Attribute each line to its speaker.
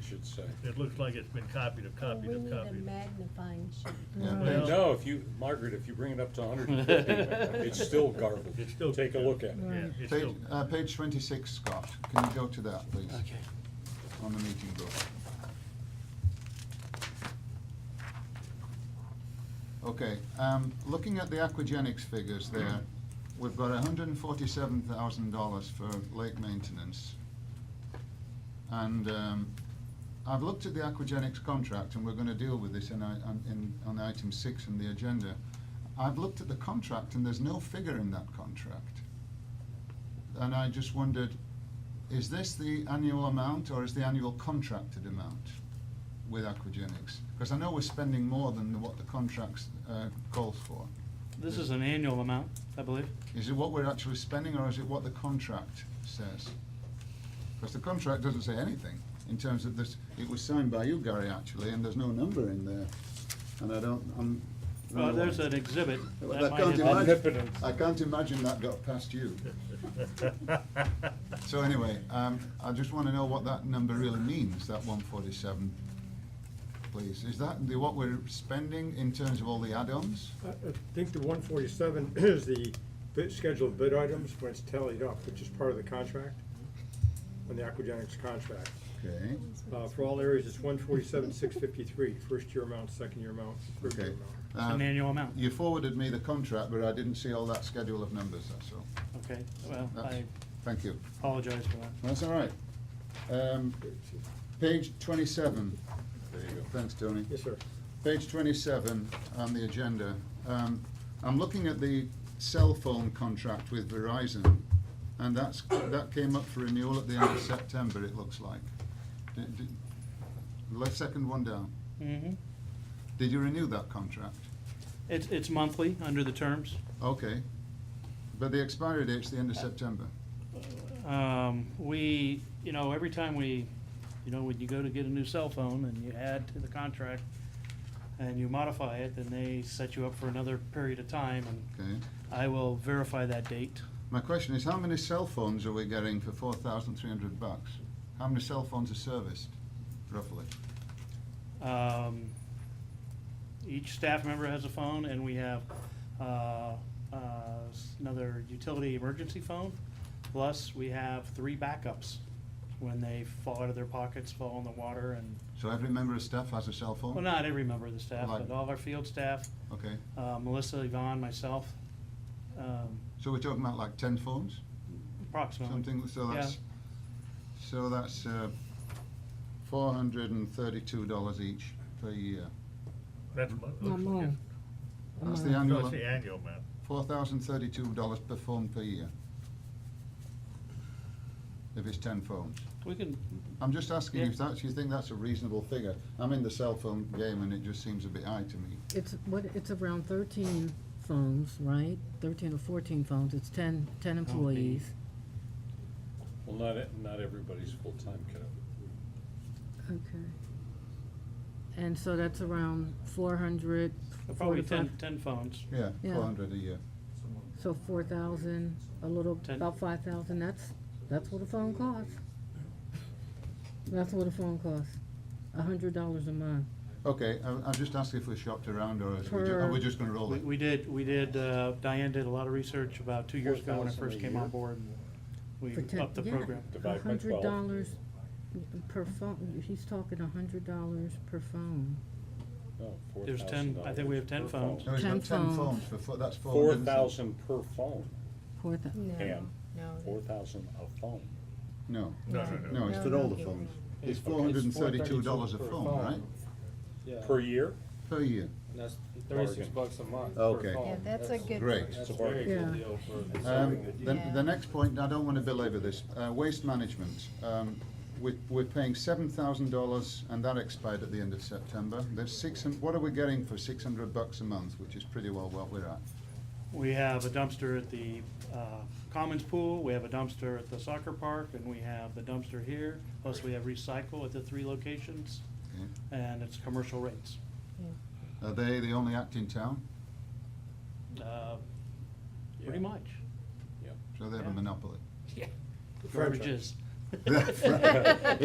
Speaker 1: should say.
Speaker 2: It looks like it's been copied and
Speaker 3: Oh,
Speaker 2: copied and
Speaker 3: We need a
Speaker 2: copied.
Speaker 3: magnifying sheet.
Speaker 4: Yeah.
Speaker 2: Well-
Speaker 1: No, if you, Margaret, if you bring it up to hundred and fifty, it's still garbled.
Speaker 2: It's still-
Speaker 1: Take a look at it.
Speaker 2: Yeah, it's
Speaker 4: Page,
Speaker 2: still,
Speaker 4: uh, page twenty-six, Scott, can you go to that, please? Okay. On the meeting book. Okay, um, looking at the aquagenics figures there, we've got hundred and forty-seven thousand dollars for lake maintenance. And, um, I've looked at the aquagenics contract, and we're gonna deal with this in, i- on- in, on item six in the agenda. I've looked at the contract, and there's no figure in that contract. And I just wondered, is this the annual amount, or is the annual contracted amount with aquagenics? Because I know we're spending more than what the contract, uh, calls for.
Speaker 5: This is an annual amount, I believe.
Speaker 4: Is it what we're actually spending, or is it what the contract says? Because the contract doesn't say anything in terms of this, it was signed by you, Gary, actually, and there's no number in there, and I don't, I'm.
Speaker 5: Well, there's an exhibit. that
Speaker 4: Well, I
Speaker 5: might
Speaker 4: can't
Speaker 5: have-
Speaker 4: imagine,
Speaker 1: Omnipotence.
Speaker 4: I can't imagine that got past you. So anyway, um, I just wanna know what that number really means, that one forty-seven, please. Is that the, what we're spending in terms of all the add-ons?
Speaker 6: I I think the one forty-seven is the bid, scheduled bid items when it's tallied up, which is part of the contract, on the aquagenics contract.
Speaker 4: Okay,
Speaker 6: Uh, for all areas, it's one forty-seven, six fifty-three, first year amount, second year amount, third year
Speaker 4: okay.
Speaker 6: amount.
Speaker 5: It's an
Speaker 4: Uh,
Speaker 5: annual amount.
Speaker 4: You forwarded me the contract, but I didn't see all that schedule of numbers, that's all.
Speaker 5: Okay, well,
Speaker 4: That's-
Speaker 5: I
Speaker 4: Thank you.
Speaker 5: apologize for that.
Speaker 4: That's all right. Um, page twenty-seven. There you go. Thanks, Tony.
Speaker 6: Yes, sir.
Speaker 4: Page twenty-seven on the agenda. Um, I'm looking at the cell phone contract with Verizon, and that's, that came up for renewal at the end of September, it looks like. Did- did- Left second one down.
Speaker 5: Mhm.
Speaker 4: Did you renew that contract?
Speaker 5: It's, it's monthly, under the terms.
Speaker 4: Okay. But the expiry date's the end of September.
Speaker 5: Um, we, you know, every time we, you know, when you go to get a new cell phone and you add to the contract and you modify it, then they set you up for another period of time, and
Speaker 4: Okay.
Speaker 5: I will verify that date.
Speaker 4: My question is, how many cell phones are we getting for four thousand three hundred bucks? How many cell phones are serviced, roughly?
Speaker 5: Um, each staff member has a phone, and we have, uh, uh, s- another utility emergency phone. Plus, we have three backups when they fall out of their pockets, fall in the water, and,
Speaker 4: So every member of staff has a cell phone?
Speaker 5: well, not every member of the staff,
Speaker 4: Like-
Speaker 5: but all of our field staff,
Speaker 4: Okay,
Speaker 5: uh, Melissa, Yvonne, myself, um,
Speaker 4: so we're talking about like ten phones,
Speaker 5: approximately.
Speaker 4: something, so that's, so that's, uh, four hundred and thirty-two dollars each per year.
Speaker 2: that's what it looks like.
Speaker 3: Mamon.
Speaker 4: That's the
Speaker 3: Amount.
Speaker 2: No, it's
Speaker 4: annual,
Speaker 2: the annual amount.
Speaker 4: four thousand thirty-two dollars per phone per year. If it's ten phones.
Speaker 5: We can,
Speaker 4: I'm just asking
Speaker 5: Yeah.
Speaker 4: if that's, you think that's a reasonable figure? I'm in the cell phone game and it just seems a bit high to me.
Speaker 7: It's, what, it's around thirteen phones, right? Thirteen or fourteen phones, it's ten, ten employees.
Speaker 1: Well, not, e- not everybody's full-time kiddo.
Speaker 7: Okay. And so that's around four hundred
Speaker 5: probably ten,
Speaker 7: forty-five,
Speaker 5: ten phones.
Speaker 4: Yeah,
Speaker 7: Yeah.
Speaker 4: four hundred a year.
Speaker 7: so four thousand, a little,
Speaker 5: Ten.
Speaker 7: about five thousand, that's, that's what a phone costs. That's what a phone costs, a hundred dollars a month.
Speaker 4: Okay, I, I'm just asking if we shopped around or is we ju- are
Speaker 7: Per-
Speaker 4: we just gonna roll
Speaker 5: We,
Speaker 4: it?
Speaker 5: we did, we did, uh, Diane did a lot of research about two years ago when I
Speaker 1: 4,000
Speaker 5: first
Speaker 1: a
Speaker 5: came
Speaker 1: year?
Speaker 5: on board. and We
Speaker 7: For ten-
Speaker 5: upped the
Speaker 7: yeah,
Speaker 5: program.
Speaker 1: Divide by
Speaker 7: A hundred
Speaker 1: 12.
Speaker 7: dollars per phone, he's talking a hundred dollars per phone.
Speaker 1: No,
Speaker 5: There's 10 I think we have 10
Speaker 1: $4,000 per phone.
Speaker 5: phones.
Speaker 4: No, it's
Speaker 7: Ten
Speaker 4: not ten
Speaker 7: phones.
Speaker 4: phones for, four- that's four
Speaker 1: Four
Speaker 4: hundred and thirty-
Speaker 1: thousand per phone,
Speaker 7: Four thou-
Speaker 3: No,
Speaker 1: Pam. four
Speaker 3: no.
Speaker 1: thousand a phone.
Speaker 4: No,
Speaker 2: No, no, no.
Speaker 4: no, it's
Speaker 3: No,
Speaker 4: for
Speaker 3: no,
Speaker 4: all the
Speaker 3: give
Speaker 4: phones.
Speaker 3: me.
Speaker 4: It's
Speaker 8: Okay,
Speaker 4: four hundred and thirty-two
Speaker 8: $432
Speaker 4: dollars a
Speaker 8: per
Speaker 4: phone, right?
Speaker 8: Yeah,
Speaker 1: Per year?
Speaker 4: Per year.
Speaker 8: and that's thirty-six
Speaker 1: Bargain.
Speaker 8: bucks a month. per
Speaker 4: Okay.
Speaker 8: phone.
Speaker 3: Yeah, that's a good.
Speaker 4: Great.
Speaker 8: That's
Speaker 1: a
Speaker 8: a very
Speaker 1: bargain.
Speaker 8: good
Speaker 7: Yeah.
Speaker 8: deal for. the
Speaker 4: Um,
Speaker 8: saving.
Speaker 4: the,
Speaker 3: Yeah.
Speaker 4: the next point, I don't wanna belabor this, uh, waste management. Um, we, we're paying seven thousand dollars and that expired at the end of September. There's six, hun- what are we getting for six hundred bucks a month, which is pretty well what we're at?
Speaker 5: We have a dumpster at the uh, Commons Pool, we have a dumpster at the soccer park, and we have the dumpster here, plus we have recycle at the three locations,
Speaker 4: Okay.
Speaker 5: and it's commercial rates.
Speaker 4: Are they the only act in town?
Speaker 5: Uh, Pretty
Speaker 1: Yeah.
Speaker 5: much.
Speaker 4: So they have a
Speaker 5: Yeah.
Speaker 4: monopoly.
Speaker 5: Garbage is.